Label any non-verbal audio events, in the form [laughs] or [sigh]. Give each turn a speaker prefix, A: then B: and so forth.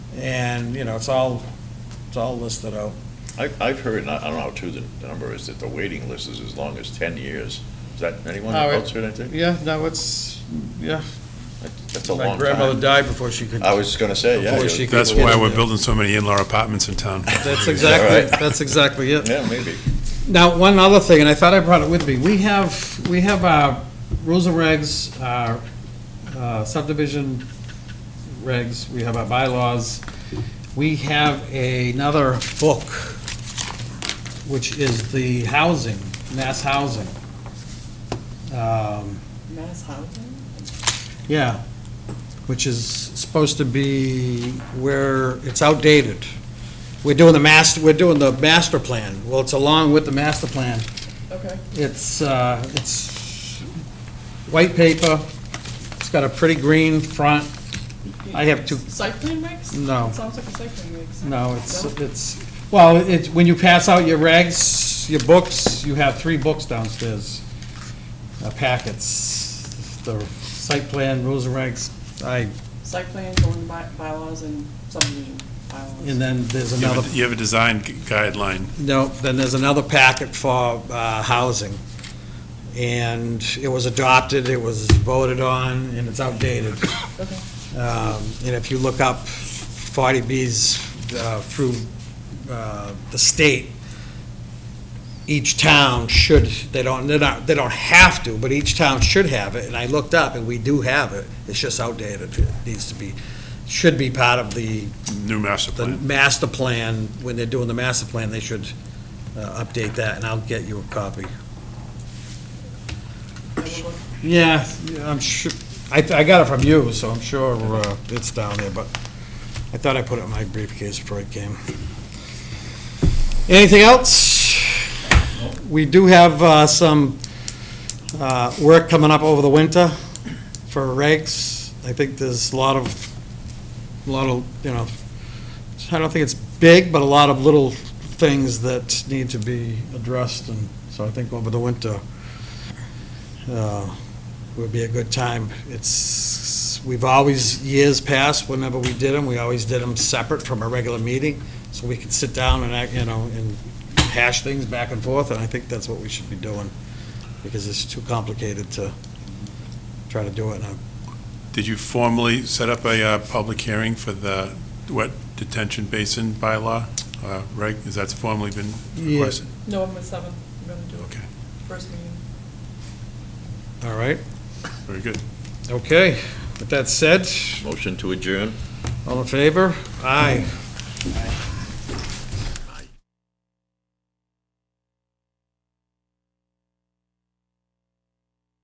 A: And, you know, it's all, it's all listed out.
B: I've, I've heard, and I I don't know how true the the number is, that the waiting list is as long as 10 years. Is that anyone
C: Oh, it-
B: else heard anything?
C: Yeah, no, it's, yeah.
B: That- That's a
A: My
B: long
A: grandmother
B: time.
A: died before she could.
B: I was just gonna say, yeah.
A: Before
B: you-
A: she could
D: That's
A: get
D: why
A: in
D: we're
A: there.
D: building so many in-law apartments in town.
C: [laughs] That's
B: that
C: exactly,
B: right?
C: that's exactly it.
B: Yeah, maybe.
C: Now, one other thing, and I thought I brought it with me, we have, we have our rules and regs, our uh, subdivision regs, we have our bylaws. We have another book, which is the housing, mass housing. Um,
E: Mass housing?
C: Yeah, which is supposed to be where it's outdated. We're doing the master, we're doing the master plan. Well, it's along with the master plan.
E: Okay.
C: It's, uh, it's white paper, it's got a pretty green front. I have two-
E: Site plan regs?
C: No.
E: It sounds like a site plan regs.
C: No, it's,
E: No?
C: it's, well, it's, when you pass out your regs, your books, you have three books downstairs, uh, packets, the site plan, rules and regs. I,
E: Site plan, going by bylaws and subdivision bylaws.
C: and then there's
D: You have a-
C: another.
D: You have a design gu- guideline.
C: No, then there's another packet for uh, housing. And it was adopted, it was voted on, and it's outdated.
E: Okay.
C: Um, And if you look up 40Bs uh, through uh, the state, each town should, they don't, they're not, they don't have to, but each town should have it. And I looked up, and we do have it. It's just outdated. It needs to be, should be part of the
D: New master
C: the
D: plan.
C: master plan, when they're doing the master plan, they should uh, update that, and I'll get you a copy. Yeah, I'm sure, I, I got it from you, so I'm sure uh, it's down there, but I thought I put it in my briefcase before I came. Anything else? We do have uh, some uh, work coming up over the winter for regs. I think there's a lot of, a lot of, you know, I don't think it's big, but a lot of little things that need to be addressed, and so I think over the winter uh, would be a good time. It's, we've always, years past, whenever we did them, we always did them separate from a regular meeting, so we could sit down and, act, you know, and hash things back and forth, and I think that's what we should be doing, because it's too complicated to try to do it in a
D: Did you formally set up a uh, public hearing for the wet detention basin bylaw? uh, Reg, is that formally been
C: Yeah.
D: requested?
E: November seventh, we're gonna do it.
D: Okay,
E: First meeting.
C: All right,
D: very good.
C: okay. With that said,
B: Motion to adjourn?
C: all in favor? Aye.